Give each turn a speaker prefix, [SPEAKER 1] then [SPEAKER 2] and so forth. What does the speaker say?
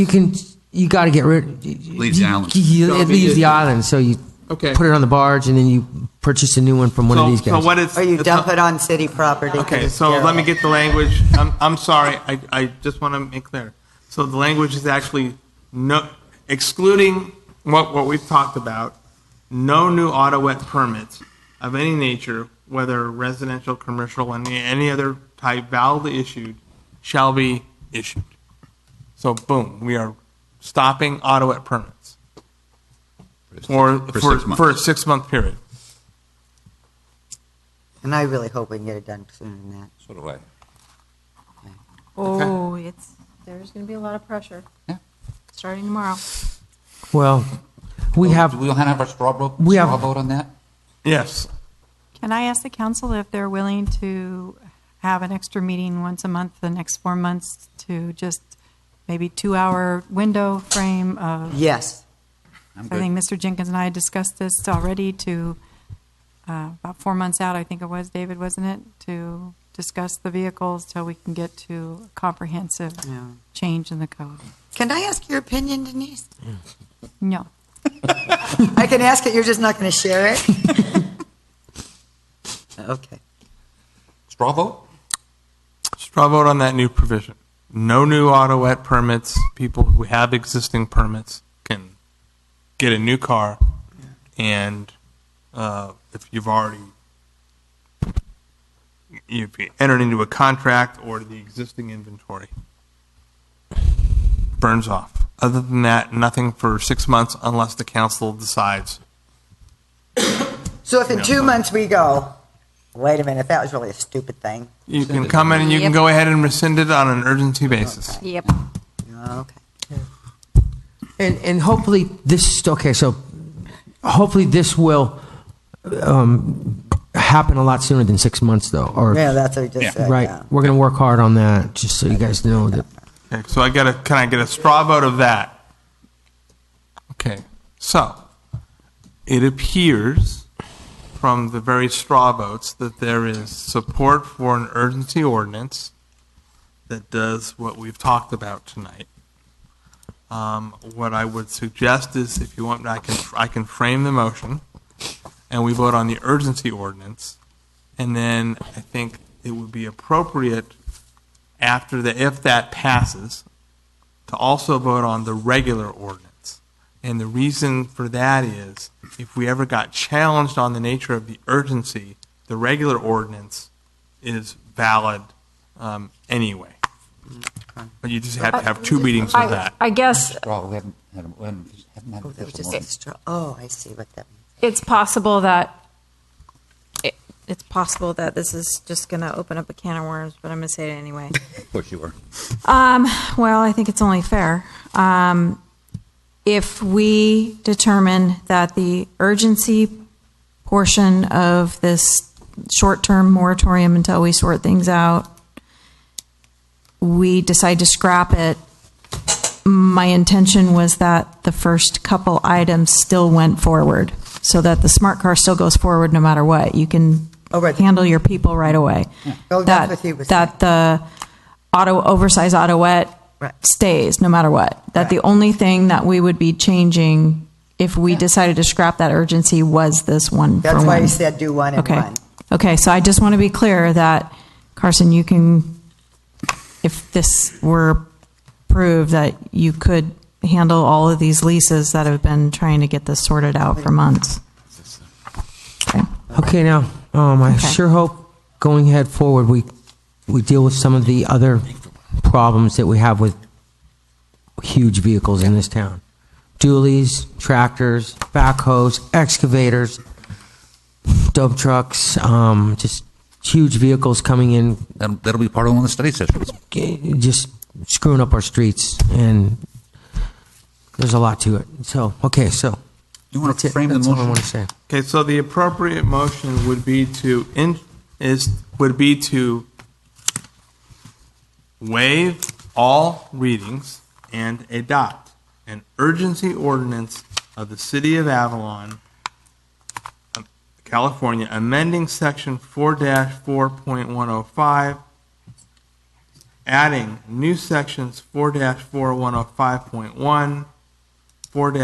[SPEAKER 1] You can, you got to get rid. Leaves
[SPEAKER 2] the island.
[SPEAKER 1] It leaves the island, so you
[SPEAKER 3] Okay.
[SPEAKER 1] put it on the barge, and then you purchase a new one from one of
[SPEAKER 3] So,
[SPEAKER 1] these
[SPEAKER 3] so
[SPEAKER 1] guys.
[SPEAKER 3] what is?
[SPEAKER 4] Or you dump it on city property. 'cause
[SPEAKER 3] Okay,
[SPEAKER 4] it's
[SPEAKER 3] so let me
[SPEAKER 4] sterile.
[SPEAKER 3] get the language. I'm, I'm sorry, I, I just want to make clear. So the language is actually no, excluding what, what we've talked about, no new auto wet permits of any nature, whether residential, commercial, and any other type validly issued, shall be issued. So boom, we are stopping auto wet permits. For,
[SPEAKER 2] For
[SPEAKER 3] for,
[SPEAKER 2] six months.
[SPEAKER 3] for a six-month period.
[SPEAKER 4] And I really hope we can get it done sooner than that.
[SPEAKER 5] So do I.
[SPEAKER 6] Oh, it's, there's going to be a lot of pressure.
[SPEAKER 5] Yeah.
[SPEAKER 6] Starting tomorrow.
[SPEAKER 1] Well, we
[SPEAKER 3] Oh.
[SPEAKER 5] Do
[SPEAKER 1] have,
[SPEAKER 5] we have our straw vote,
[SPEAKER 1] We have-
[SPEAKER 5] straw vote on that?
[SPEAKER 3] Yes.
[SPEAKER 7] Can I ask the council if they're willing to have an extra meeting once a month for the next four months to just maybe two-hour window frame of,
[SPEAKER 4] Yes,
[SPEAKER 5] I'm
[SPEAKER 7] I
[SPEAKER 5] good.
[SPEAKER 7] think Mr. Jenkins and I discussed this already to, uh, about four months out, I think it was, David, wasn't it? To discuss the vehicles till we can get to a comprehensive
[SPEAKER 4] Yeah.
[SPEAKER 7] change in the code.
[SPEAKER 4] Can I ask your opinion, Denise?
[SPEAKER 7] No.
[SPEAKER 4] I can ask it, you're just not going to share it? Okay.
[SPEAKER 5] Straw vote?
[SPEAKER 3] Straw vote on that new provision. No new auto wet permits. People who have existing permits can get a new car. And uh, if you've already, if you entered into a contract or the existing inventory burns off. Other than that, nothing for six months unless the council decides.
[SPEAKER 4] So if in two months we go, wait a minute, that was really a stupid thing.
[SPEAKER 3] You can come in and you can go ahead and rescind it on an urgency basis.
[SPEAKER 6] Yep.
[SPEAKER 3] Oh,
[SPEAKER 4] Okay.
[SPEAKER 1] and, and hopefully this, okay, so hopefully this will um, happen a lot sooner than six months, though, or,
[SPEAKER 4] Yeah, that's what we just said.
[SPEAKER 1] right?
[SPEAKER 4] yeah.
[SPEAKER 1] We're going to work hard on that, just so you guys know that.
[SPEAKER 3] Okay, so I get a, can I get a straw vote of that? Okay, so it appears from the very straw votes that there is support for an urgency ordinance that does what we've talked about tonight. Um, what I would suggest is if you want, I can, I can frame the motion and we vote on the urgency ordinance. And then I think it would be appropriate after the, if that passes, to also vote on the regular ordinance. And the reason for that is if we ever got challenged on the nature of the urgency, the regular ordinance is valid um, anyway. But you just have to have two meetings of
[SPEAKER 6] I,
[SPEAKER 3] that.
[SPEAKER 6] I guess
[SPEAKER 5] Straw, we haven't, had a- we haven't, haven't had
[SPEAKER 4] Oh, that was
[SPEAKER 5] official
[SPEAKER 4] just a
[SPEAKER 5] motion.
[SPEAKER 4] straw, oh, I see what that means.
[SPEAKER 6] it's possible that, it- it's possible that this is just going to open up a can of worms, but I'm going to say it anyway.
[SPEAKER 5] Of course you are.
[SPEAKER 7] Um, well, I think it's only fair. Um, if we determine that the urgency portion of this short-term moratorium until we sort things out, we decide to scrap it, my intention was that the first couple items still went forward, so that the smart car still goes forward no matter what. You can
[SPEAKER 4] Oh, right.
[SPEAKER 7] handle your people right away.
[SPEAKER 4] Oh, that's what he
[SPEAKER 7] That,
[SPEAKER 4] was
[SPEAKER 7] that the auto, oversized autoette
[SPEAKER 4] Right.
[SPEAKER 7] stays no matter what. That the only thing that we would be changing if we decided to scrap that urgency was this one for
[SPEAKER 4] That's why
[SPEAKER 7] one.
[SPEAKER 4] you said do one and
[SPEAKER 7] Okay.
[SPEAKER 4] one.
[SPEAKER 7] Okay, so I just want to be clear that, Carson, you can, if this were approved, that you could handle all of these leases that have been trying to get this sorted out for months. Okay.
[SPEAKER 1] Okay, now, um, I
[SPEAKER 7] Okay.
[SPEAKER 1] sure hope going ahead forward, we, we deal with some of the other problems that we have with huge vehicles in this town. Dualies, tractors, backhoes, excavators, dump trucks, um, just huge vehicles coming in,
[SPEAKER 5] That'll, that'll be part of one of the study sessions.
[SPEAKER 1] g- just screwing up our streets, and there's a lot to it. So, okay, so,
[SPEAKER 5] You want
[SPEAKER 1] that's
[SPEAKER 5] to
[SPEAKER 1] it,
[SPEAKER 5] frame the
[SPEAKER 1] that's all I
[SPEAKER 5] motion?
[SPEAKER 1] want to say.
[SPEAKER 3] Okay, so the appropriate motion would be to, in- is, would be to waive all readings and adopt an urgency ordinance of the City of Avalon, um, California, oh amending Section 4-4.105 adding new sections four dash four one oh five point one, four